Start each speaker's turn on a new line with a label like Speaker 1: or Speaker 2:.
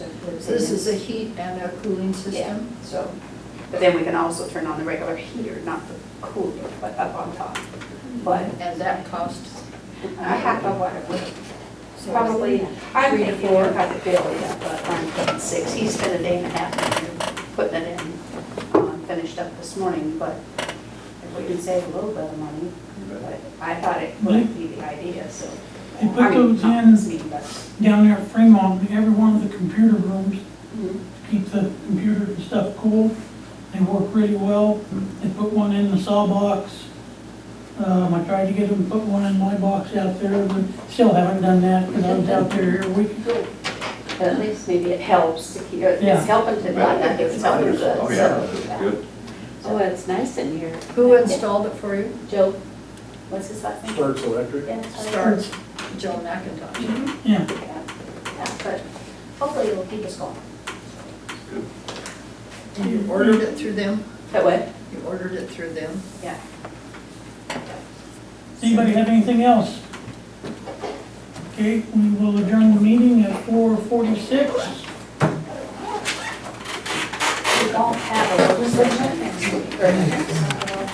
Speaker 1: This is a heat and a cooling
Speaker 2: Yeah,
Speaker 1: system?
Speaker 2: so, but then we can also turn on the regular heater, not the cooler, but up on top. But
Speaker 1: And that costs?
Speaker 2: a half of what it would,
Speaker 1: so-
Speaker 2: probably, I'm
Speaker 1: Three to
Speaker 2: thinking
Speaker 1: four.
Speaker 2: about the bill, yeah, but I'm putting six. He spent a day and a half in here putting it in, um, finished up this morning, but if we can save a little bit of money, but I thought it would be the idea, so.
Speaker 3: They put
Speaker 2: I mean,
Speaker 3: those
Speaker 2: not
Speaker 3: in-
Speaker 2: this meeting, but-
Speaker 3: down there at Fremont, every one of the computer rooms,
Speaker 2: Mhm.
Speaker 3: to keep the computer and stuff cool. They work really well. They put one in the saw box. Um, I tried to get them to put one in my box out there, but still haven't done that, because I was out there a week ago.
Speaker 2: But at least maybe it helps to keep,
Speaker 3: Yeah.
Speaker 2: it's helping to, not that it's helping good,
Speaker 4: Oh, yeah,
Speaker 2: so.
Speaker 4: that's
Speaker 2: yeah.
Speaker 4: good.
Speaker 5: Oh, it's nice in here.
Speaker 1: Who installed it for you?
Speaker 5: Joe,
Speaker 2: What's his last name?
Speaker 4: Starts electric.
Speaker 2: Yeah, sorry.
Speaker 1: Starts Joe McIntosh.
Speaker 2: Mhm.
Speaker 3: Yeah,
Speaker 2: Yeah, yeah, But hopefully it'll keep us going.
Speaker 1: And you ordered it through them?
Speaker 2: That what?
Speaker 1: You ordered it through them?
Speaker 2: Yeah.
Speaker 3: Does anybody have anything else? Okay, we will adjourn the meeting at four forty-six.
Speaker 2: We don't have a legislation next week, or next